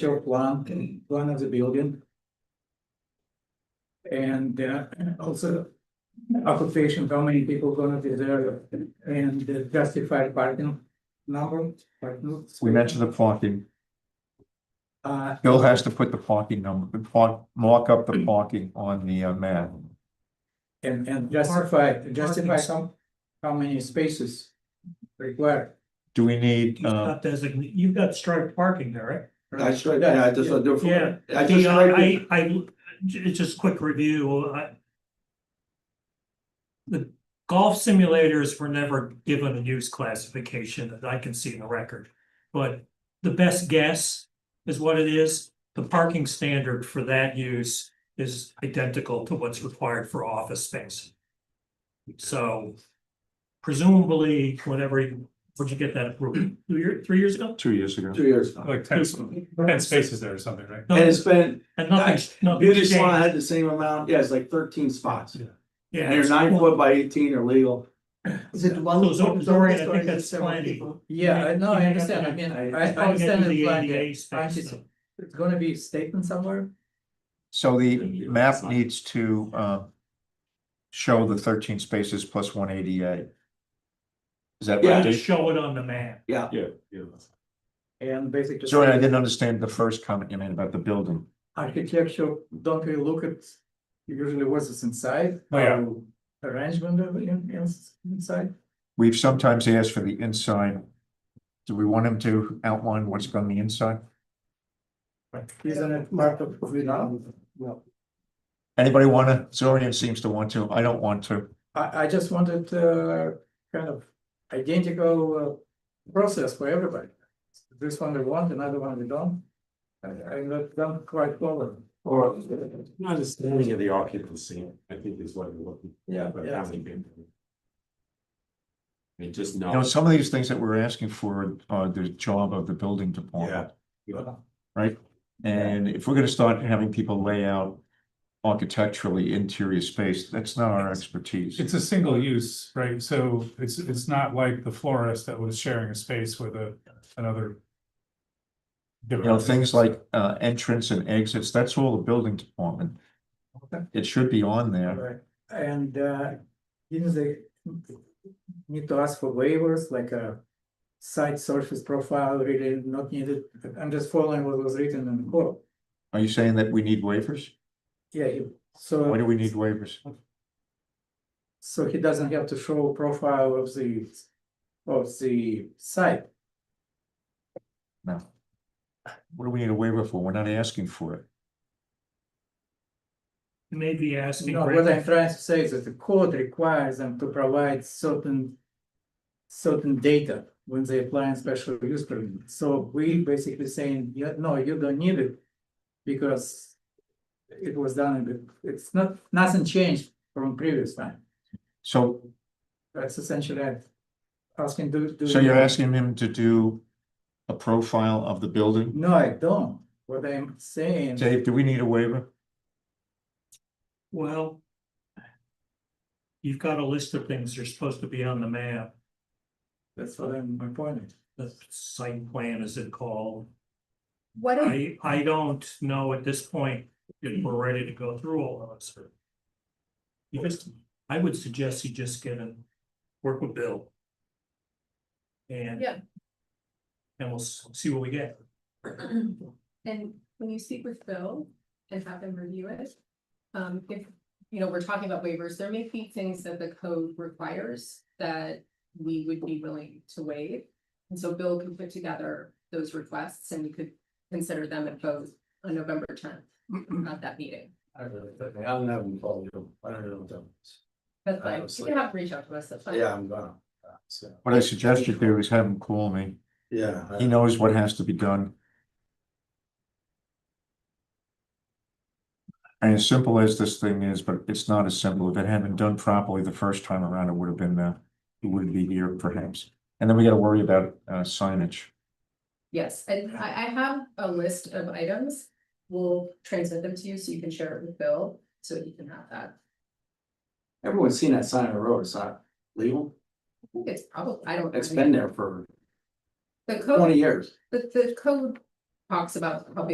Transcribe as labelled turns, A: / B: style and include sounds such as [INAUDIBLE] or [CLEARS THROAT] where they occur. A: show plan, plan of the building. And uh, also occupation, how many people gonna be there and the justified parking number, parking.
B: We mentioned the parking.
A: Uh,
B: Bill has to put the parking number, the park, mark up the parking on the uh, map.
A: and, and justify, justify some, how many spaces required.
B: Do we need,
C: You've
B: uh,
C: got designated, you've got striped parking there,
D: I straight, yeah, I just. I do-
C: Yeah.
D: I
C: right?
D: just.
C: Yeah,
D: straight-
C: I, I, j- just quick review, I. The golf simulators were never given a use classification that I can see in the record. But the best guess is what it is. The parking standard for that use is identical to what's required for office space. So presumably, whenever, you- where'd you get that approved? Two year, three years ago?
B: Two years ago.
D: Two years. now.
E: Like ten, ten spaces there or something, right?
D: And it's been,
C: And nothing's, nothing's
D: beauty salon
C: changed.
D: had the same amount, yeah, it's like thirteen spots.
E: Yeah.
C: Yeah,
D: And they're
C: it's-
D: nine foot by eighteen are legal.
F: Is it one?
C: So, so,
F: one
C: Dorian, I think
F: story with
C: that's
F: several
C: plenty.
F: people?
A: Yeah, I know, I understand, I mean, I I
C: It's probably
A: understand
C: gonna be
A: the
C: the
A: plan,
C: ADA
A: I
C: space,
A: just-
C: so.
A: it's gonna be statement somewhere.
B: So the map needs to, uh, show the thirteen spaces plus one ADA. Is that
D: Yeah.
B: right,
C: Just
B: Dave?
C: show it on the map.
E: Yeah, yeah.
A: And basically.
B: Sorry, I didn't understand the first comment you made about the building.
A: architecture, don't we look at usually what's inside?
E: Oh, yeah.
A: how Arrangement of in- in- inside,
B: We've sometimes asked for the inside. Do we want him to outline what's on the inside?
A: isn't it part of without? Well,
B: Anybody wanna, Zorian seems to want to, I don't want to.
A: I I just wanted uh kind of identical uh, process for everybody. This one they want, another one they don't. I I'm not done quite following.
E: Or understanding of the occupancy, I think is what we're looking
A: Yeah,
E: for.
A: yeah.
E: And just
B: You know, some of these things that we're asking for are the job of the building department.
E: Yeah.
B: Right? And if we're gonna start having people lay out architecturally interior space, that's not our expertise.
G: It's a single use, right? So it's, it's not like the florist that was sharing a space with a, another.
B: You know, things like uh entrance and exits, that's all the building department.
A: Okay.
B: It should be on there.
A: Right, and uh, didn't they need to ask for waivers, like a site surface profile really not needed? I'm just following what was written in the code.
B: Are you saying that we need waivers?
A: Yeah, he- so.
B: Why do we need waivers?
A: So he doesn't have to show profile of the, of the site.
B: No. What do we need a waiver for? We're not asking for it.
C: Maybe asking.
A: No,
C: for-
A: what I'm trying to say is that the code requires them to provide certain. Certain data when they apply in special use permit, so we basically saying, yeah, no, you don't need it. Because. It was done, in the- it's not, nothing changed from previous time,
B: So,
A: that's essentially it. Asking do. do
B: so
A: you-
B: you're asking him to do a profile of the building?
A: No, I don't, what I'm saying.
B: Dave, do we need a waiver?
C: Well. You've got a list of things that are supposed to be on the map,
A: That's what I'm, my point is.
C: the site plan is it called?
F: What if
C: I, I don't know at this point if we're ready to go through all of this. You just, I would suggest you just get and work with Bill. And.
F: Yeah.
C: And we'll s- see what we get.
F: [CLEARS THROAT] And when you speak with Bill and have them review it, um, if, you know, we're talking about waivers, there may be things that the code requires that we would be willing to waive. And so Bill can put together those requests and we could consider them at both on November tenth, at that meeting.
D: I don't have them follow you. I don't know what that means.
F: That's fine, you
D: Obviously.
F: can have, reach out to us, that's fine.
D: Yeah, I'm gonna. uh, So,
B: What I suggest you do is have him call me.
D: yeah. I-
B: He knows what has to be done. And as simple as this thing is, but it's not as simple. If it had been done properly the first time around, it would have been, uh, it wouldn't be here perhaps. And then we gotta worry about uh signage.
F: Yes, and I, I have a list of items. We'll transmit them to you so you can share it with Bill, so he can have that.
D: Everyone's seen that sign on the road, it's not legal,
F: I think it's probably, I don't.
D: it's been there for
F: The
D: twenty
F: code,
D: years.
F: the, the code talks about how big